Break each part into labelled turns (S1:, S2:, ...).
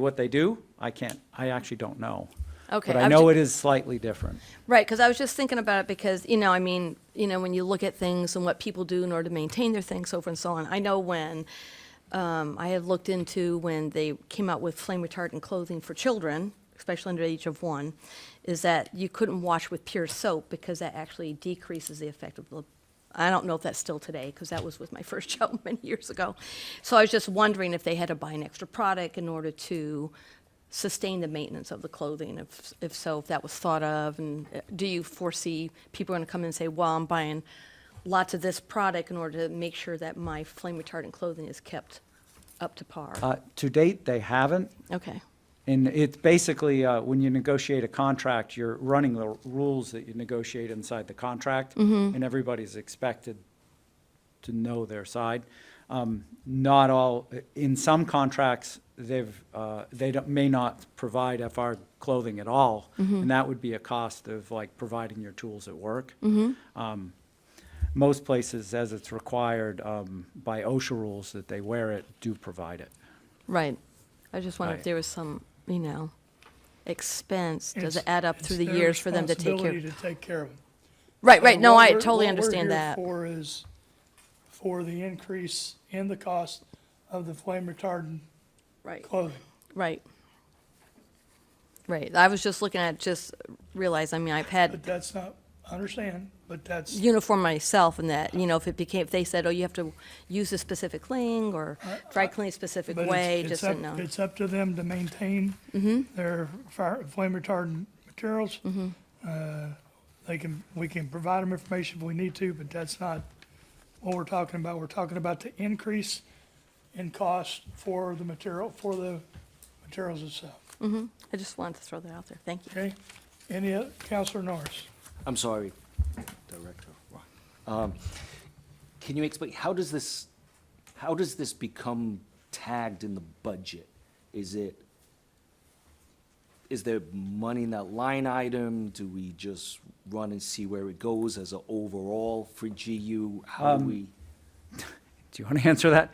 S1: What they do, I can't, I actually don't know.
S2: Okay,
S1: But I
S2: I'm
S1: know
S2: ju-
S1: it is slightly different.
S2: Right, because I was just thinking about it because, you know, I mean, you know, when you look at things and what people do in order to maintain their things, so forth and so on, I know when, um, I had looked into when they came out with flame retardant clothing for children, especially under the age of one, is that you couldn't wash with pure soap because that actually decreases the effect of the, I don't know if that's still today, because that was with my first job many years ago. So I was just wondering if they had to buy an extra product in order to sustain the maintenance of the clothing? If, if so, if that was thought of, and uh, do you foresee people are gonna come in and say, well, I'm buying lots of this product in order to make sure that my flame retardant clothing is kept up to par?
S1: Uh, To date, they haven't.
S2: Okay,
S1: And it's basically, uh, when you negotiate a contract, you're running the rules that you negotiate inside the contract. And everybody's expected to know their side. Um, Not all, in some contracts, they've, uh, they don't- may not provide FR clothing at all. And that would be a cost of like providing your tools at work. Um, Most places, as it's required um, by OSHA rules that they wear it, do provide it.
S2: right. I just wondered if
S1: Right.
S2: there was some, you know, expense, does it
S3: It's-
S2: add up
S3: it's
S2: through the
S3: their
S2: years for them to take care?
S3: responsibility to take care of them.
S2: Right, right, no,
S3: What
S2: I
S3: we're-
S2: totally understand that.
S3: What we're here for is for the increase in the cost of the flame retardant
S2: Right.
S3: clothing.
S2: Right. Right, I was just looking at, just realized, I mean, I've had
S3: But that's not, I understand, but that's,
S2: uniform myself in that, you know, if it became, if they said, oh, you have to use a specific thing or dry clean a specific
S3: uh, but
S2: way,
S3: it's, it's
S2: just
S3: up,
S2: didn't know.
S3: it's up to them to maintain their fire, flame retardant materials. Uh, They can, we can provide them information if we need to, but that's not what we're talking about. We're talking about the increase in cost for the material, for the materials itself.
S2: I just wanted to throw that out there. Thank you.
S3: Okay, any, oth- Counselor Norris?
S4: I'm sorry, Director. Roy. Um, Can you explain, how does this, how does this become tagged in the budget? Is it, is there money in that line item? Do we just run and see where it goes as an overall for GU? How do we?
S1: Do you want to answer that?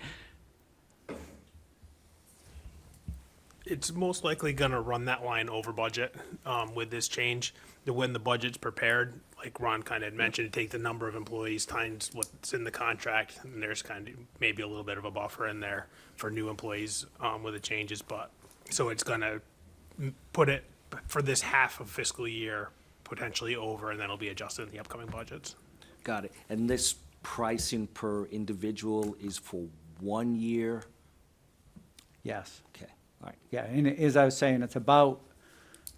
S5: It's most likely gonna run that line over budget, um, with this change. The- When the budget's prepared, like Ron kind of had mentioned, take the number of employees times what's in the contract, and there's kind of maybe a little bit of a buffer in there for new employees, um, with the changes, but, so it's gonna m- put it for this half of fiscal year potentially over, and then it'll be adjusted in the upcoming budgets.
S4: Got it. And this pricing per individual is for one year?
S1: Yes.
S4: Okay, all right.
S1: Yeah, and as I was saying, it's about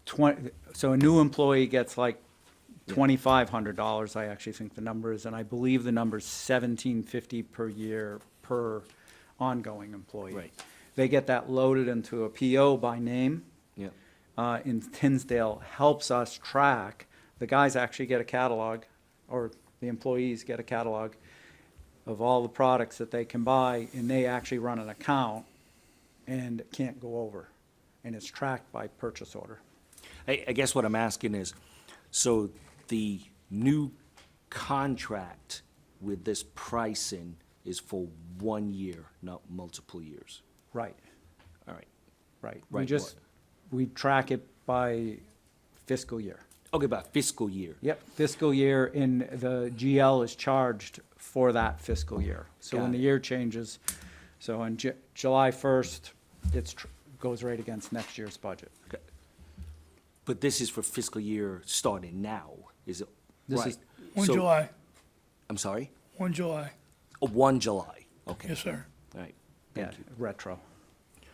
S1: twenty, so a new employee gets like twenty-five hundred dollars, I actually think the number is, and I believe the number's seventeen fifty per year per ongoing employee.
S4: Right.
S1: They get that loaded into a PO by name.
S4: Yeah,
S1: uh, in Tinsdale helps us track, the guys actually get a catalog, or the employees get a catalog of all the products that they can buy, and they actually run an account and can't go over. And it's tracked by purchase order.
S4: I, I guess what I'm asking is, so the new contract with this pricing is for one year, not multiple years?
S1: Right,
S4: All right.
S1: right. We
S4: Right,
S1: just, we track it by fiscal year.
S4: Okay, about fiscal year?
S1: Yep, fiscal year, and the GL is charged for that fiscal year. So when
S4: Got
S1: the
S4: it.
S1: year changes, so on Ju- July first, it's, tr- goes right against next year's budget.
S4: Okay. But this is for fiscal year starting now, is it?
S1: This is-
S4: right.
S3: One
S4: So-
S3: July,
S4: I'm sorry?
S3: one July,
S4: Oh, One July, okay,
S3: yes, sir.
S4: all right,
S1: Yeah,
S4: thank you.
S1: retro.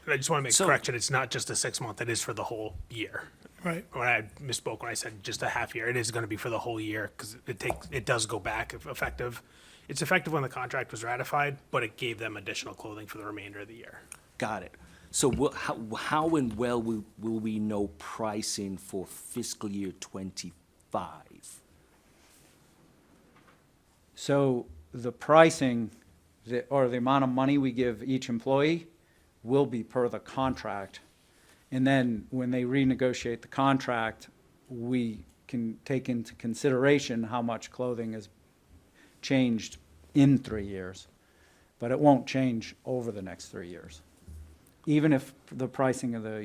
S5: And I just wanna make a
S4: So-
S5: correction, it's not just a six-month, it is for the whole year.
S3: Right,
S5: when I misspoke when I said just a half year. It is going to be for the whole year because it takes it does go back if effective. It's effective when the contract was ratified, but it gave them additional clothing for the remainder of the year.
S4: Got it. So wha- how, how and well will, will we know pricing for fiscal year twenty-five?
S1: So the pricing, the- or the amount of money we give each employee will be per the contract. And then when they renegotiate the contract, we can take into consideration how much clothing is changed in three years. But it won't change over the next three years. Even if the pricing of the